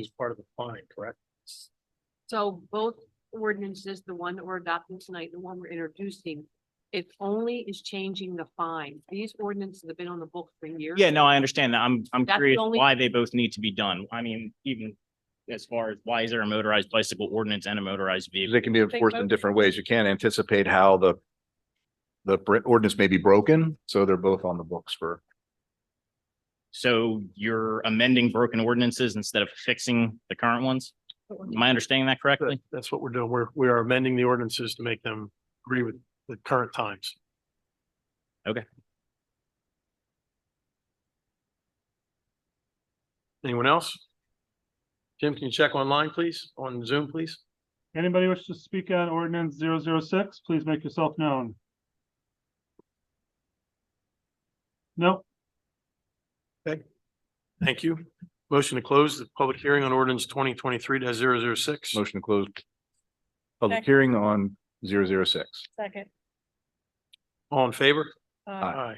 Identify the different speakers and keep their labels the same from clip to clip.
Speaker 1: is part of the fine, correct?
Speaker 2: So both ordinances, the one that we're adopting tonight, the one we're introducing, it only is changing the fine. These ordinances have been on the books for years.
Speaker 3: Yeah, no, I understand that. I'm, I'm
Speaker 2: That's the
Speaker 3: curious
Speaker 2: only-
Speaker 3: why they both need to be done. I mean, even as far as why is there a motorized bicycle ordinance and a motorized vehicle?
Speaker 4: They can be enforced in
Speaker 2: both-
Speaker 4: different ways. You can't anticipate how the the br- ordinance may be broken, so they're both on the books for,
Speaker 3: So you're amending broken ordinances instead of fixing the current ones? Am I understanding that correctly?
Speaker 1: That's what we're doing. We're, we are amending the ordinances to make them agree with the current times.
Speaker 3: Okay.
Speaker 1: Anyone else? Jim, can you check online, please? On Zoom, please?
Speaker 5: Anybody wish to speak on ordinance zero zero six, please make yourself known. No,
Speaker 1: Thank you. Motion to close the public hearing on ordinance twenty twenty-three 6
Speaker 4: motion to close public
Speaker 6: Second.
Speaker 4: hearing on zero zero six.
Speaker 6: Second.
Speaker 1: All in favor?
Speaker 4: Aye.
Speaker 1: Aye.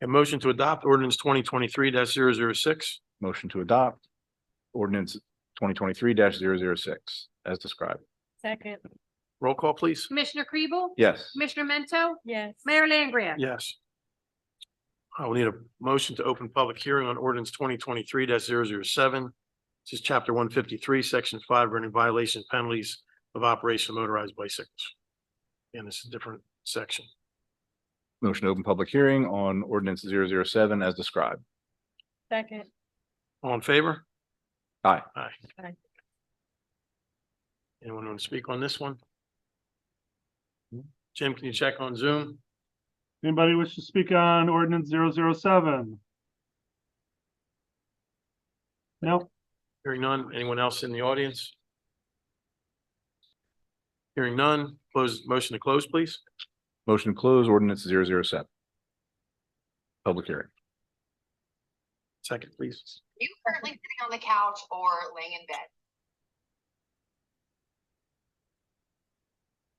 Speaker 1: A motion to adopt ordinance twenty twenty-three 6
Speaker 4: Motion to adopt ordinance twenty twenty-three 6 as described.
Speaker 6: Second,
Speaker 1: Roll call, please.
Speaker 2: Commissioner Kribel?
Speaker 4: Yes,
Speaker 2: Commissioner Mento?
Speaker 6: yes.
Speaker 2: Mayor Langria?
Speaker 1: Yes. I will need a motion to open public hearing on ordinance twenty twenty-three 7 This is chapter one fifty-three, section five, running violation penalties of operation of motorized bicycles. And this is a different section.
Speaker 4: motion to open public hearing on ordinance zero zero seven as described.
Speaker 6: Second,
Speaker 1: All in favor?
Speaker 4: Aye.
Speaker 1: Aye.
Speaker 6: Aye.
Speaker 1: Anyone want to speak on this one? Jim, can you check on Zoom?
Speaker 5: anybody wish to speak on ordinance zero zero seven? No,
Speaker 1: Hearing none. Anyone else in the audience? Hearing none. Close, motion to close, please.
Speaker 4: Motion to close ordinance zero zero seven. Public hearing.
Speaker 1: Second, please.
Speaker 7: you currently sitting on the couch or laying in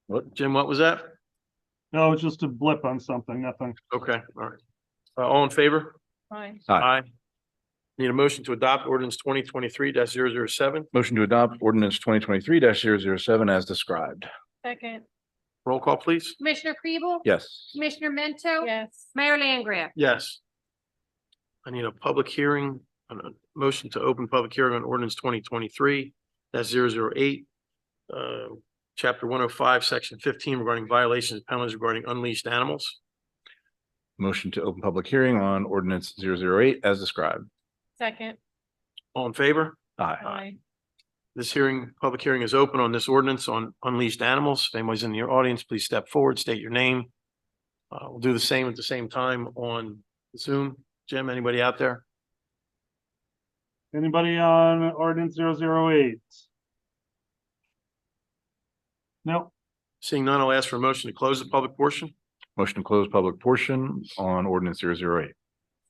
Speaker 7: bed?
Speaker 1: Jim, what was that?
Speaker 5: no, it's just a blip on something, nothing.
Speaker 1: Okay, all right. Uh, all in favor?
Speaker 6: fine,
Speaker 4: Aye.
Speaker 1: Need a motion to adopt ordinance twenty twenty-three 7
Speaker 4: Motion to adopt ordinance twenty twenty-three 7 as described.
Speaker 6: second,
Speaker 1: Roll call, please.
Speaker 2: Commissioner Kribel?
Speaker 4: Yes,
Speaker 2: Commissioner Mento?
Speaker 6: yes.
Speaker 2: Mayor Langria?
Speaker 1: Yes. I need a public hearing, a motion to open public hearing on ordinance twenty twenty-three that's zero zero eight. Uh, chapter one oh five, section fifteen regarding violations and penalties regarding unleashed animals.
Speaker 4: motion to open public hearing on ordinance zero zero eight as described.
Speaker 6: Second,
Speaker 1: All in favor?
Speaker 4: Aye.
Speaker 6: aye,
Speaker 1: This hearing, public hearing is open on this ordinance on unleashed animals. If anybody's in your audience, please step forward, state your name. Uh, we'll do the same at the same time on Zoom. Jim, anybody out there?
Speaker 5: Anybody on ordinance zero zero eight? No,
Speaker 1: Seeing none, I'll ask for a motion to close the public portion.
Speaker 4: Motion to close public portion on ordinance zero zero eight.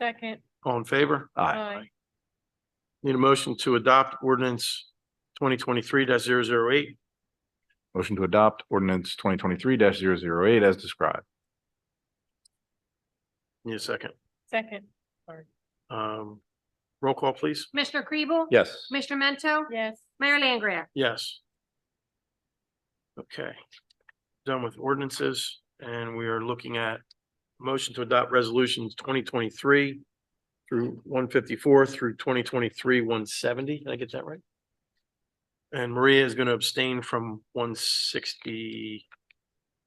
Speaker 6: second,
Speaker 1: All in favor?
Speaker 4: Aye.
Speaker 6: aye,
Speaker 1: Need a motion to adopt ordinance twenty twenty-three 8
Speaker 4: Motion to adopt ordinance twenty twenty-three 8 as described.
Speaker 1: Need a second.
Speaker 6: second,
Speaker 1: Um, roll call, please.
Speaker 2: Commissioner Kribel?
Speaker 4: Yes.
Speaker 2: Commissioner Mento?
Speaker 6: yes.
Speaker 2: Mayor Langria?
Speaker 1: Yes. Okay. Done with ordinances and we are looking at motion to adopt resolutions twenty twenty-three through one fifty-four through twenty twenty-three, one seventy. Did I get that right? And Maria is going to abstain from one sixty,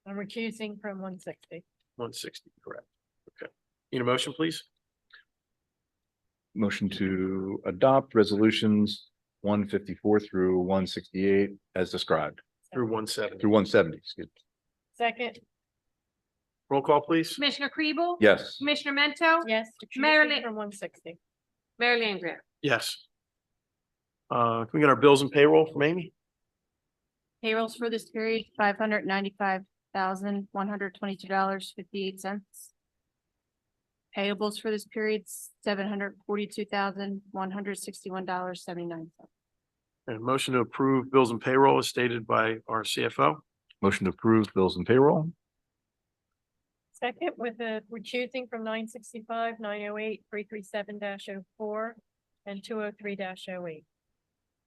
Speaker 6: I'm recusing from one sixty.
Speaker 1: one sixty, correct? Okay. Need a motion, please?
Speaker 4: Motion to adopt resolutions one fifty-four through one sixty-eight as described,
Speaker 1: Through one seventy.
Speaker 4: through one seventy, excuse me.
Speaker 6: Second,
Speaker 1: Roll call, please.
Speaker 2: Commissioner Kribel?
Speaker 4: Yes.
Speaker 2: Commissioner Mento?
Speaker 8: Oh,
Speaker 6: yes.
Speaker 2: Mayor
Speaker 6: recusing
Speaker 2: Ling-
Speaker 6: From one sixty.
Speaker 2: Mayor Langria?
Speaker 1: Yes. Uh, can we get our bills and payroll from Amy?
Speaker 8: Payrolls for this period, five hundred ninety-five thousand, one hundred twenty-two dollars, fifty-eight cents. Payables for this period, seven hundred forty-two thousand, one hundred sixty-one dollars, seventy-nine cents.
Speaker 1: And a motion to approve bills and payroll as stated by our CFO.
Speaker 4: Motion to approve bills and payroll.
Speaker 6: Second, with the recusing from nine sixty-five, nine oh eight, three three seven dash oh four, and two oh three dash oh eight.